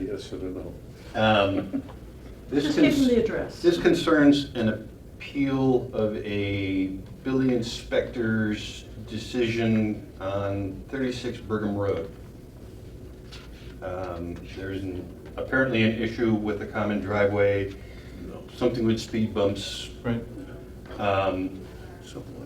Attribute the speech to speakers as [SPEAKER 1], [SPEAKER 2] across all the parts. [SPEAKER 1] Yes or no?
[SPEAKER 2] Um, This
[SPEAKER 3] Just give them the
[SPEAKER 2] cons-
[SPEAKER 3] address.
[SPEAKER 2] this concerns an appeal of a building inspector's decision on 36 Brigham Road. Um, There's an- apparently an issue with the common driveway, something with speed bumps.
[SPEAKER 4] Right.
[SPEAKER 2] Um,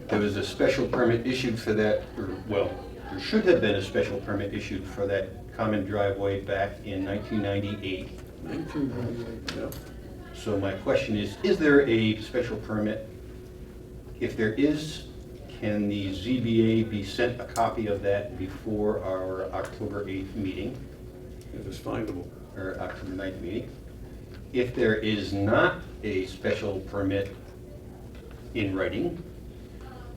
[SPEAKER 2] There was a special permit issued for that, or, well, there should have been a special permit issued for that common driveway back in 1998.
[SPEAKER 1] Yeah.
[SPEAKER 2] So my question is, is there a special permit? If there is, can the ZBA be sent a copy of that before our October 8th meeting,
[SPEAKER 1] It is findable.
[SPEAKER 2] or October 9th meeting? If there is not a special permit in writing,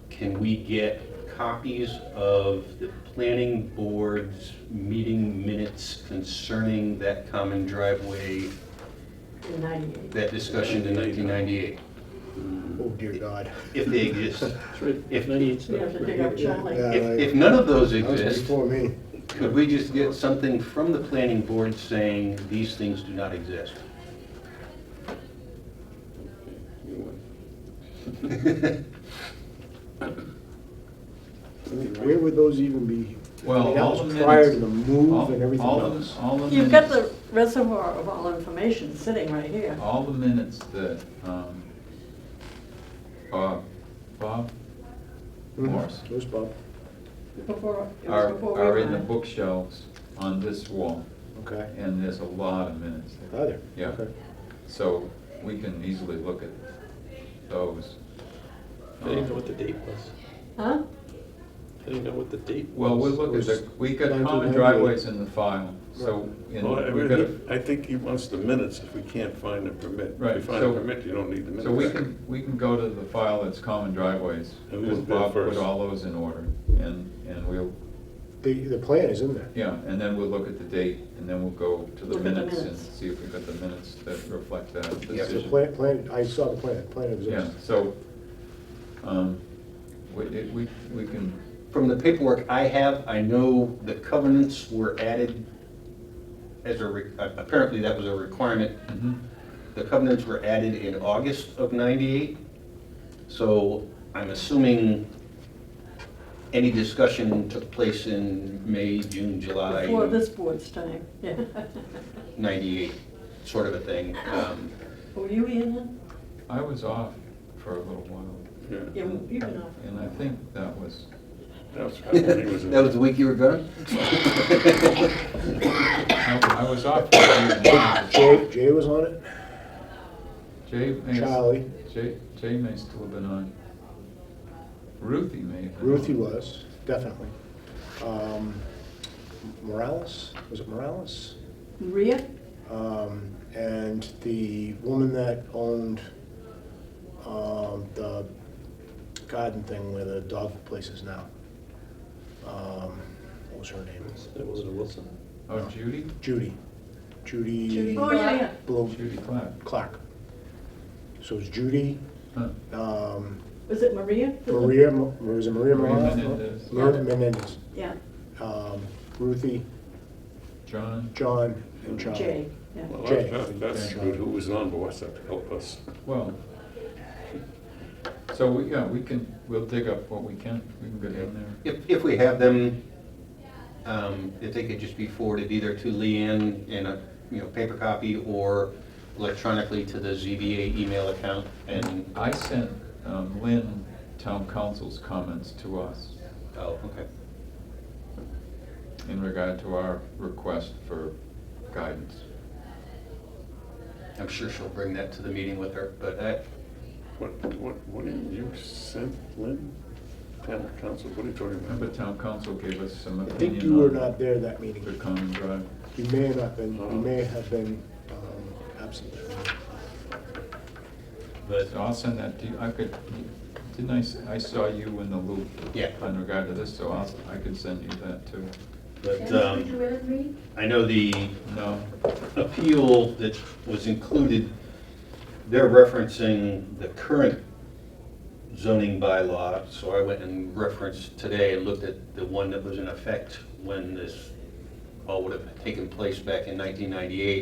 [SPEAKER 2] can we get copies of the planning board's meeting minutes concerning that common driveway,
[SPEAKER 3] In 98.
[SPEAKER 2] that discussion in 1998?
[SPEAKER 5] Oh, dear God.
[SPEAKER 2] if they exist.
[SPEAKER 1] It's right-
[SPEAKER 2] If-
[SPEAKER 3] We have to dig up Charlie.
[SPEAKER 5] Yeah.
[SPEAKER 2] If, if none of those
[SPEAKER 5] That was
[SPEAKER 2] exist,
[SPEAKER 5] before me.
[SPEAKER 2] could we just get something from the planning board saying these things do not exist?
[SPEAKER 1] You win.
[SPEAKER 5] Where would those even be? I mean,
[SPEAKER 4] Well,
[SPEAKER 5] that
[SPEAKER 4] all
[SPEAKER 5] was
[SPEAKER 4] the
[SPEAKER 5] prior to
[SPEAKER 4] minutes-
[SPEAKER 5] the move
[SPEAKER 4] all-
[SPEAKER 5] and everything
[SPEAKER 4] all of
[SPEAKER 5] else.
[SPEAKER 4] the- All the
[SPEAKER 3] You've got
[SPEAKER 4] minutes-
[SPEAKER 3] the reservoir of all information sitting right here.
[SPEAKER 4] All the minutes that, um, Bob, Bob
[SPEAKER 5] Mhm.
[SPEAKER 4] Morris
[SPEAKER 5] Those Bob,
[SPEAKER 3] Before, it was
[SPEAKER 4] are,
[SPEAKER 3] before
[SPEAKER 4] are
[SPEAKER 3] we
[SPEAKER 4] in the
[SPEAKER 3] were.
[SPEAKER 4] bookshelves on this wall,
[SPEAKER 5] okay.
[SPEAKER 4] and there's a lot of minutes there.
[SPEAKER 5] Are there?
[SPEAKER 4] Yeah.
[SPEAKER 5] Okay.
[SPEAKER 4] So we can easily look at those. Uh,
[SPEAKER 1] I didn't know what the date was.
[SPEAKER 3] Huh?
[SPEAKER 1] I didn't know what the date was.
[SPEAKER 4] Well, we'll look at the, we got common
[SPEAKER 5] 1998.
[SPEAKER 4] driveways in the file, so,
[SPEAKER 1] Well, I
[SPEAKER 4] and we've got,
[SPEAKER 1] really- I think he wants the minutes if we can't find a permit. If you
[SPEAKER 4] Right,
[SPEAKER 1] find a
[SPEAKER 4] so-
[SPEAKER 1] permit, you don't need the minutes.
[SPEAKER 4] so we can, we can go to the file that's common driveways.
[SPEAKER 1] And we'll do it
[SPEAKER 4] Bob put
[SPEAKER 1] first.
[SPEAKER 4] all those in order, and, and we'll,
[SPEAKER 5] The, the plan is in there.
[SPEAKER 4] Yeah, and then we'll look at the date, and then we'll go to the
[SPEAKER 3] Look at the
[SPEAKER 4] minutes and
[SPEAKER 3] minutes.
[SPEAKER 4] see if we've got the minutes that reflect that
[SPEAKER 5] The
[SPEAKER 4] decision.
[SPEAKER 5] plan, plan, I saw the plan, plan
[SPEAKER 4] Yeah,
[SPEAKER 5] exists.
[SPEAKER 4] so, um, we, it- we, we can,
[SPEAKER 2] From the paperwork I have, I know the covenants were added as a, re- apparently that was a requirement.
[SPEAKER 4] mhm,
[SPEAKER 2] The covenants were added in August of 98, so I'm assuming any discussion took place in May, June, July.
[SPEAKER 3] Before this board's time, yeah.
[SPEAKER 2] 98, sort of a thing. Um,
[SPEAKER 3] Were you in it?
[SPEAKER 4] I was off for a little while,
[SPEAKER 1] Yeah.
[SPEAKER 3] Yeah, You've been off.
[SPEAKER 4] and I think that was,
[SPEAKER 1] That was probably when he was in-
[SPEAKER 2] That was the week you were gone?
[SPEAKER 4] I I was off. for a few months.
[SPEAKER 5] Jay, Jay was on it,
[SPEAKER 4] Jay may,
[SPEAKER 5] Charlie,
[SPEAKER 4] Jay, Jay may still have been on. Ruthie may have been. on.
[SPEAKER 5] Ruthie was, definitely. Um, Morales, was it Morales?
[SPEAKER 3] Maria?
[SPEAKER 5] Um, and the woman that owned, um, the garden thing where the dog place is now. Um, what was her name?
[SPEAKER 1] That wasn't Wilson?
[SPEAKER 4] Oh, Judy?
[SPEAKER 5] Judy. Judy
[SPEAKER 3] Oh, yeah, yeah.
[SPEAKER 5] Blo-
[SPEAKER 4] Judy Clark.
[SPEAKER 5] Clark. So it's Judy,
[SPEAKER 4] Huh.
[SPEAKER 5] um,
[SPEAKER 3] Was it Maria?
[SPEAKER 5] Maria, Mo- was it Maria
[SPEAKER 4] Maria
[SPEAKER 5] Morales?
[SPEAKER 4] Menendez.
[SPEAKER 5] Maria Menendez,
[SPEAKER 3] Yeah,
[SPEAKER 5] um, Ruthie,
[SPEAKER 4] John?
[SPEAKER 5] John, and Charlie.
[SPEAKER 3] Jay, yeah.
[SPEAKER 1] Well,
[SPEAKER 5] Jay.
[SPEAKER 1] that- that's good. Who was on board to help us?
[SPEAKER 4] Well, so, we yeah, we can, we'll dig up what we can, we can go down there.
[SPEAKER 2] If, if we have them, um, if they could just be forwarded either to Leanne in a, you know, paper copy or electronically to the ZBA email account and,
[SPEAKER 4] I sent um, Lynn Town Council's comments to us
[SPEAKER 2] oh, okay.
[SPEAKER 4] in regard to our request for guidance.
[SPEAKER 2] I'm sure she'll bring that to the meeting with her, but I,
[SPEAKER 1] What, what, what did you send Lynn? Town council, what are you talking
[SPEAKER 4] Remember,
[SPEAKER 1] about?
[SPEAKER 4] Town Council gave us some
[SPEAKER 5] I
[SPEAKER 4] opinion
[SPEAKER 5] think you were
[SPEAKER 4] on
[SPEAKER 5] not there that meeting.
[SPEAKER 4] The common drive.
[SPEAKER 5] You may have not been, you may have been, um, absent.
[SPEAKER 2] but,
[SPEAKER 4] So I'll send that to you, I could, didn't I, s- I saw you in the loop
[SPEAKER 2] Yeah.
[SPEAKER 4] in regard to this, so I'll, I could send you that too.
[SPEAKER 2] but,
[SPEAKER 6] Dennis, would you
[SPEAKER 2] um,
[SPEAKER 6] wear the green?
[SPEAKER 2] I know the
[SPEAKER 4] No,
[SPEAKER 2] appeal that was included, they're referencing the current zoning bylaw, so I went and referenced today and looked at the one that was in effect when this all would have taken place back in 1998